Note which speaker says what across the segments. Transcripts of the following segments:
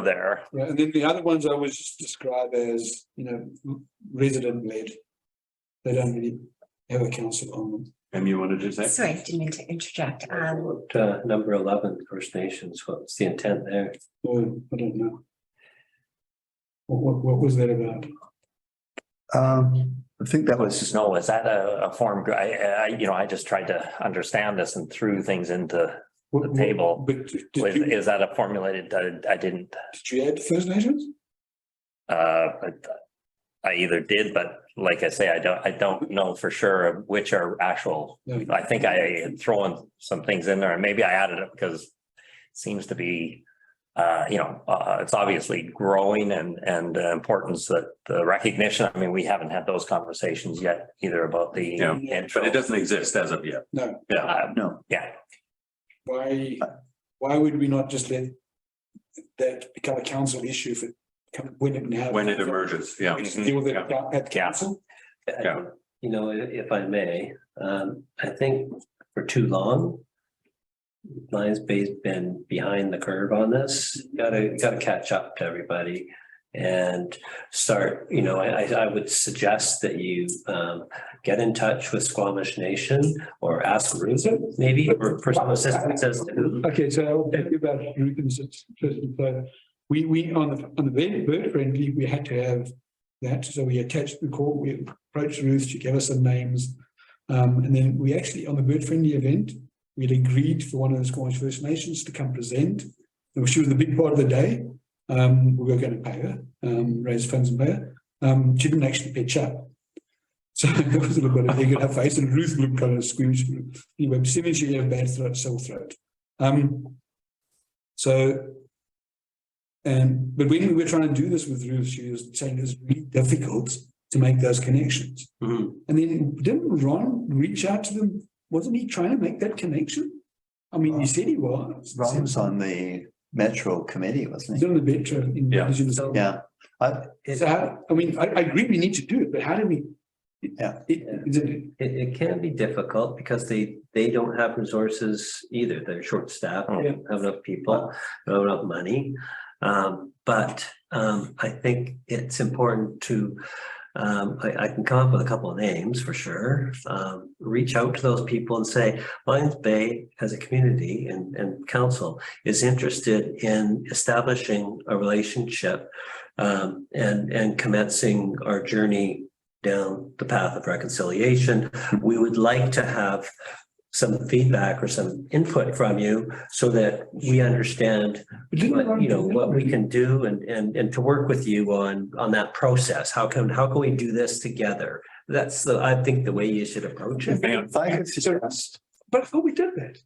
Speaker 1: there.
Speaker 2: Yeah, and then the other ones I would just describe as, you know, m- resident-led. They don't really have a council on them.
Speaker 3: Em, you wanted to say?
Speaker 4: Sorry, didn't mean to interject. Um,
Speaker 5: What, uh, number eleven, First Nations, what's the intent there?
Speaker 2: Oh, I don't know. What, what, what was that about?
Speaker 1: Um, I think that was. just No, is that a, a form, gr- I, I, you know, I just tried to understand this and threw things into,
Speaker 2: What-
Speaker 1: The
Speaker 2: what-
Speaker 1: table
Speaker 2: But did you,
Speaker 1: was, is that a formulated, I, I didn't,
Speaker 2: did you add First Nations?
Speaker 1: uh, but. I either did, but like I say, I don't, I don't know for sure which are actual.
Speaker 2: No.
Speaker 1: I think I had thrown some things in there and maybe I added it because it seems to be. Uh, you know, uh, it's obviously growing and, and the importance that the recognition, I mean, we haven't had those conversations yet either about the.
Speaker 3: Yeah,
Speaker 1: intro.
Speaker 3: But it doesn't exist as of yet.
Speaker 2: No.
Speaker 3: Yeah,
Speaker 1: Uh,
Speaker 3: no.
Speaker 1: Yeah,
Speaker 2: Why, why would we not just let that become a council issue for, come- when it now?
Speaker 3: when it emerges, yeah.
Speaker 2: We just deal with it
Speaker 3: Yeah.
Speaker 2: at
Speaker 1: Yeah.
Speaker 2: council?
Speaker 5: I
Speaker 3: Yeah.
Speaker 5: think, You know, i- if I may, um, I think for too long. Lions Bay's been behind the curve on this, gotta, gotta catch up to everybody. And start, you know, I, I, I would suggest that you, um, get in touch with Squamish Nation or ask Ruth maybe for personal assistance as to who
Speaker 2: Okay, so I'll tell you about Rubens first and foremost. We, we, on the, on the very bird friendly, we had to have that, so we attached the call, we approached Ruth, she gave us some names. Um, and then we actually, on the bird friendly event, we'd agreed for one of the Squamish First Nations to come present. And She was the big part of the day, um, we were gonna pay her, um, raise funds and pay her, um, she didn't actually pitch up. So that was a little bit of a dig in her face, and Ruth looked kind of squeamish, anyway, seemingly she had a bad throat, sore throat. Um, so. And, but when we were trying to do this with Ruth, she was saying it's really difficult to make those connections.
Speaker 5: Mhm.
Speaker 2: And then didn't Ron reach out to them? Wasn't he trying to make that connection? I mean, he said he was.
Speaker 6: Ron was on the metro committee, wasn't
Speaker 2: He's
Speaker 6: he?
Speaker 2: on the bench in.
Speaker 3: Yeah.
Speaker 2: Indigenous-
Speaker 6: Yeah,
Speaker 2: So how, I mean, I, I agree we need to do it, but how do we?
Speaker 6: Yeah.
Speaker 2: It, is it,
Speaker 5: It, it can be difficult because they, they don't have resources either. They're short staffed, they don't have enough people, they don't have enough money. Um, but, um, I think it's important to, um, I, I can come up with a couple of names for sure. Um, reach out to those people and say, Lions Bay as a community and, and council is interested in establishing a relationship um, and, and commencing our journey down the path of reconciliation. We would like to have some feedback or some input from you so that we understand
Speaker 2: but didn't
Speaker 5: what,
Speaker 2: Ron
Speaker 5: you know,
Speaker 2: do that?
Speaker 5: what we can do and, and, and to work with you on, on that process. How can, how can we do this together? That's the, I think the way you should approach it.
Speaker 3: Man,
Speaker 6: if I could suggest,
Speaker 2: But I thought we did that.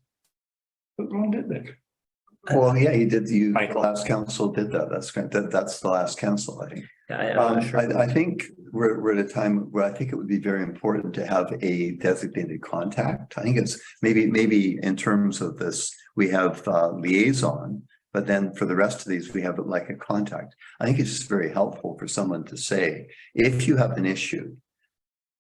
Speaker 2: But Ron did that.
Speaker 6: well, yeah, you did, you, the
Speaker 1: Michael.
Speaker 6: last council did that, that's, great. That- that's the last council, I think.
Speaker 5: I- I'm not
Speaker 6: Um,
Speaker 5: sure.
Speaker 6: I, I think we're, we're at a time where I think it would be very important to have a designated contact. I think it's maybe, maybe in terms of this, we have uh, liaison, but then for the rest of these, we have it like a contact. I think it's just very helpful for someone to say, if you have an issue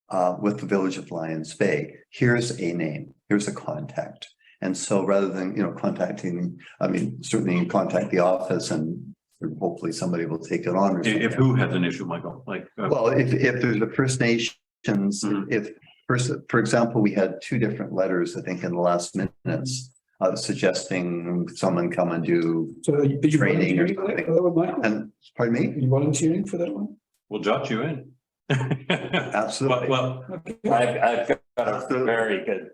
Speaker 6: uh, with the Village of Lions Bay, here's a name, here's a contact. And so rather than, you know, contacting, I mean, certainly you contact the office and hopefully somebody will take it on. or something.
Speaker 3: If, if who has an issue, Michael, like, uh,
Speaker 6: Well, if, if there's a First Nations,
Speaker 3: Mhm.
Speaker 6: if, first, for example, we had two different letters, I think, in the last minutes. Uh, suggesting someone come and do,
Speaker 2: So are you are you
Speaker 6: Training or
Speaker 2: volunteering for that,
Speaker 6: something.
Speaker 2: Hello, Michael?
Speaker 6: and, pardon
Speaker 2: Are
Speaker 6: me,
Speaker 2: you volunteering for that one?
Speaker 3: we'll jot you in. Well,
Speaker 6: absolutely.
Speaker 3: well,
Speaker 1: I've, I've got a very good,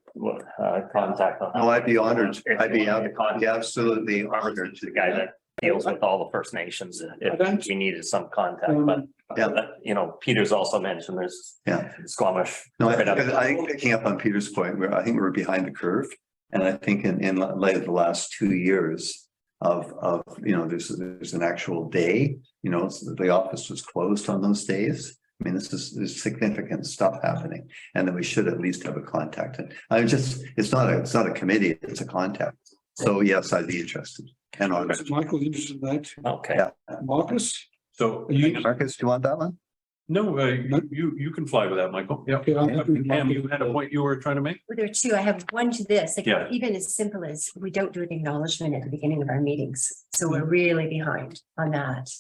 Speaker 1: uh, contact. on-
Speaker 6: Oh, I'd be honored.
Speaker 1: If
Speaker 6: I'd be
Speaker 1: you want me to
Speaker 6: ab-
Speaker 1: contact
Speaker 6: be absolutely
Speaker 1: Robert's
Speaker 6: honored.
Speaker 1: The guy that deals with all the First Nations,
Speaker 2: I
Speaker 1: if
Speaker 2: don't-
Speaker 1: we needed some contact,
Speaker 2: Um,
Speaker 1: but.
Speaker 6: Yeah.
Speaker 1: but, You know, Peter's also mentioned there's.
Speaker 6: Yeah.
Speaker 1: Squamish.
Speaker 6: No, I
Speaker 1: right
Speaker 6: think,
Speaker 1: up-
Speaker 6: I think picking up on Peter's point, where I think we're behind the curve. And I think in, in light of the last two years of, of, you know, there's, there's an actual day, you know, so the office was closed on those days. I mean, this is, there's significant stuff happening and then we should at least have a contact. And I just, it's not a, it's not a committee, it's a contact. So yes, I'd be interested. And on,
Speaker 2: So Michael's interested in that.
Speaker 1: Okay.
Speaker 6: Yeah.
Speaker 2: Marcus,
Speaker 3: so.
Speaker 2: Are you-
Speaker 6: Marcus, do you want that one?
Speaker 3: No, uh, you- you, you can fly with that, Michael. Yeah.
Speaker 2: Okay, I'm happy with
Speaker 3: Pam,
Speaker 2: Michael.
Speaker 3: you had a point you were trying to make?
Speaker 4: Well, There are two. I have one to this, like
Speaker 3: Yeah.
Speaker 4: even as simple as we don't do an acknowledgement at the beginning of our meetings. So we're really behind on that.